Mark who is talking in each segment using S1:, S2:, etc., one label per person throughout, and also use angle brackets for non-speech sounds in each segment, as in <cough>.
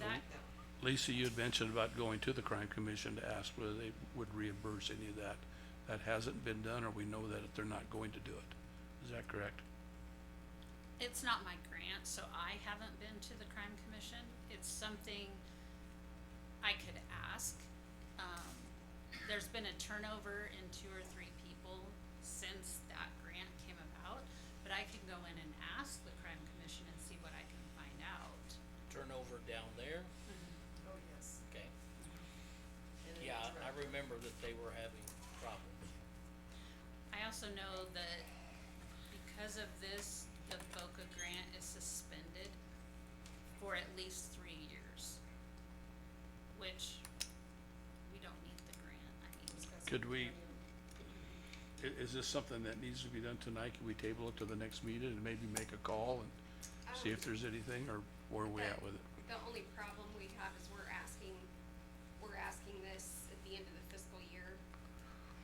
S1: um,
S2: Lisa, you had mentioned about going to the crime commission to ask whether they would reimburse any of that. That hasn't been done, or we know that they're not going to do it. Is that correct?
S3: It's not my grant, so I haven't been to the crime commission. It's something I could ask. Um, there's been a turnover in two or three people since that grant came about, but I can go in and ask the crime commission and see what I can find out.
S4: turnover down there,
S5: Oh, yes.
S4: okay,
S5: And it
S4: yeah,
S5: was
S4: I
S5: rough.
S4: remember that they were having problems.
S3: I also know that because of this, the BOCA grant is suspended for at least three years. Which, we don't need the grant, I mean,
S2: Could we, i- is this something that needs to be done tonight? Can we table it to the next meeting and maybe make a call and see if there's anything, or where are we at with it?
S1: The only problem we have is we're asking, we're asking this at the end of the fiscal year.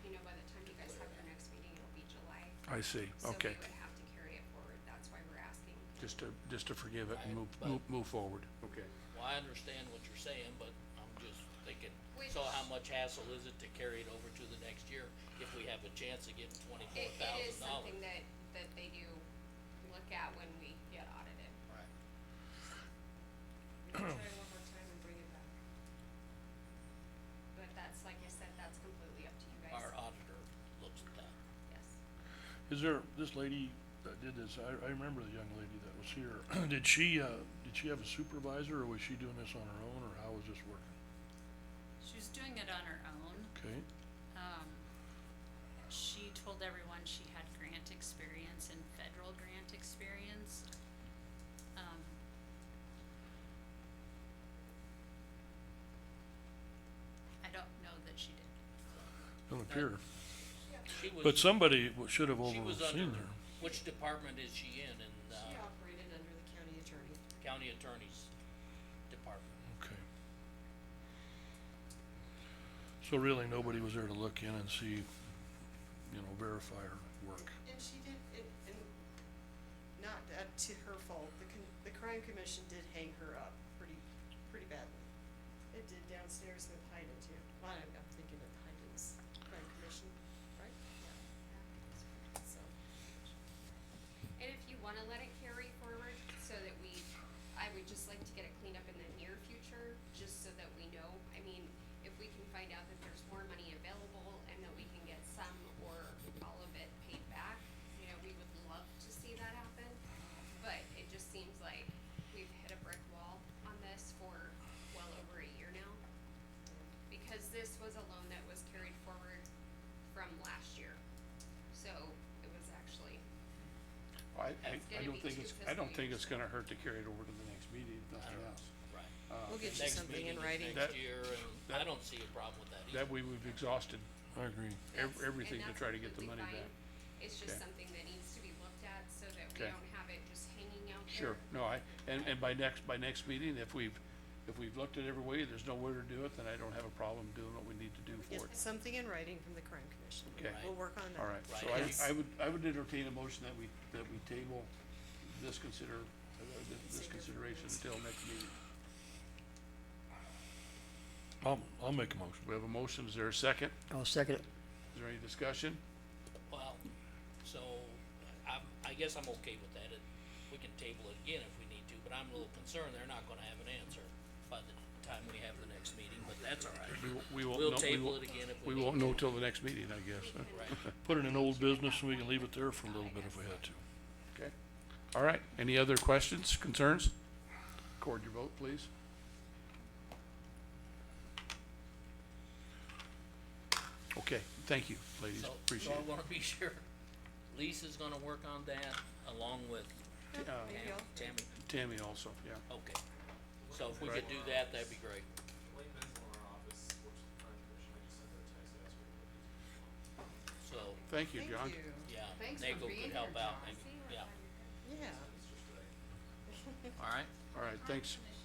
S1: You know, by the time you guys have your next meeting, it'll be July.
S2: I see,
S1: So
S2: okay.
S1: we would have to carry it forward, that's why we're asking.
S2: Just to, just to forgive it and move,
S4: Right, but-
S2: move, move forward. Okay.
S4: Well, I understand what you're saying, but I'm just thinking, so how
S1: Which-
S4: much hassle is it to carry it over to the next year if we have a chance of getting twenty-four
S1: It, it is
S4: thousand dollars?
S1: something that, that they do look at when we get audited.
S4: Right.
S5: We'll try one more time and bring it back.
S1: But that's, like I said, that's completely up to you guys.
S4: Our auditor looks at that.
S1: Yes.
S6: Is there, this lady that did this, I, I remember the young lady that was here, <clears throat> did she, uh, did she have a supervisor, or was she doing this on her own, or how was this working?
S3: She's doing it on her own.
S6: Okay,
S3: Um, she told everyone she had grant experience and federal grant experience. Um, I don't know that she did.
S6: don't appear,
S4: She was,
S6: but somebody w- should have
S4: she was
S6: overseen
S4: under,
S6: her.
S4: which department is she in, in, uh,
S5: She operated under the county attorney.
S4: county attorney's department?
S6: Okay. So really, nobody was there to look in and see, you know, verify her work.
S5: And she did, and, and not that to her fault, the con- the crime commission did hang her up pretty, pretty badly. It did downstairs with Hyden too. Well, I'm, I'm thinking of Hyden's crime commission, right? Yeah. So,
S1: And if you wanna let it carry forward, so that we, I would just like to get it cleaned up in the near future, just so that we know, I mean, if we can find out that there's more money available and that we can get some or all of it paid back, you know, we would love to see that happen. But it just seems like we've hit a brick wall on this for well over a year now. Because this was a loan that was carried forward from last year, so it was actually
S2: I, I,
S4: It's
S2: I
S1: gonna
S2: don't
S1: be
S2: think
S1: two
S2: it's, I don't
S1: fiscal
S2: think
S1: years.
S2: it's gonna hurt to carry it over to the next meeting, if nothing else. Uh,
S4: Right.
S5: we'll get you
S4: Next
S5: something
S4: meeting
S5: in
S4: is
S5: writing.
S4: Next
S2: That-
S4: year, and I don't see a problem with that either.
S2: That way we've exhausted
S6: I agree.
S2: ev-
S1: That's- and
S2: everything to
S1: that's
S2: try to get the money
S1: completely
S2: back.
S1: fine. It's just
S2: Okay.
S1: something that needs to be looked at so that we
S2: Okay.
S1: don't have it just hanging out there.
S2: Sure, no, I, and, and by next, by next meeting, if we've, if we've looked at every way, there's nowhere to do it, then I don't have a problem doing what we need to do
S5: Get
S2: for it.
S5: something in writing from the crime commission.
S2: Okay.
S5: We'll work on that.
S2: All right, so
S4: Right.
S2: I, I would, I would entertain a motion that we, that we table this consider, uh, this- this consideration until next meeting.
S6: I'll, I'll make a motion.
S2: We have a motion, is there a second?
S7: I'll second it.
S2: Is there any discussion?
S4: Well, so, I, I guess I'm okay with that, it, we can table it again if we need to, but I'm a little concerned they're not gonna have an answer by the time we have the next meeting, but that's all right.
S2: We, w- we won't know.
S4: We'll table it again if we
S2: We
S4: need
S2: won't
S4: to.
S2: know till the next meeting, I guess, huh?
S4: Right,
S6: Put it in old business, and we can leave it there for a little bit if we had to.
S2: okay? All right, any other questions, concerns? Record your vote, please. Okay, thank you, ladies,
S4: so, so
S2: appreciate
S4: I
S2: it.
S4: wanna be <laughs> sure, Lisa's gonna work on that along with
S2: Uh,
S5: Maybe I'll-
S4: Tammy,
S2: Tammy also, yeah.
S4: okay. So if we could do that, that'd be great,
S8: Wayne Benzel in our office works with the crime commission, I just sent her a text asking her what he's
S4: so,
S2: Thank you,
S5: Thank
S2: John.
S5: you.
S4: yeah,
S1: Thanks for
S4: Nagel
S1: being
S4: could help
S1: here,
S4: out,
S1: John.
S4: maybe,
S1: See, we're
S4: yeah,
S1: glad you're here.
S5: Yeah.
S8: just today.
S4: alright,
S2: All right, thanks,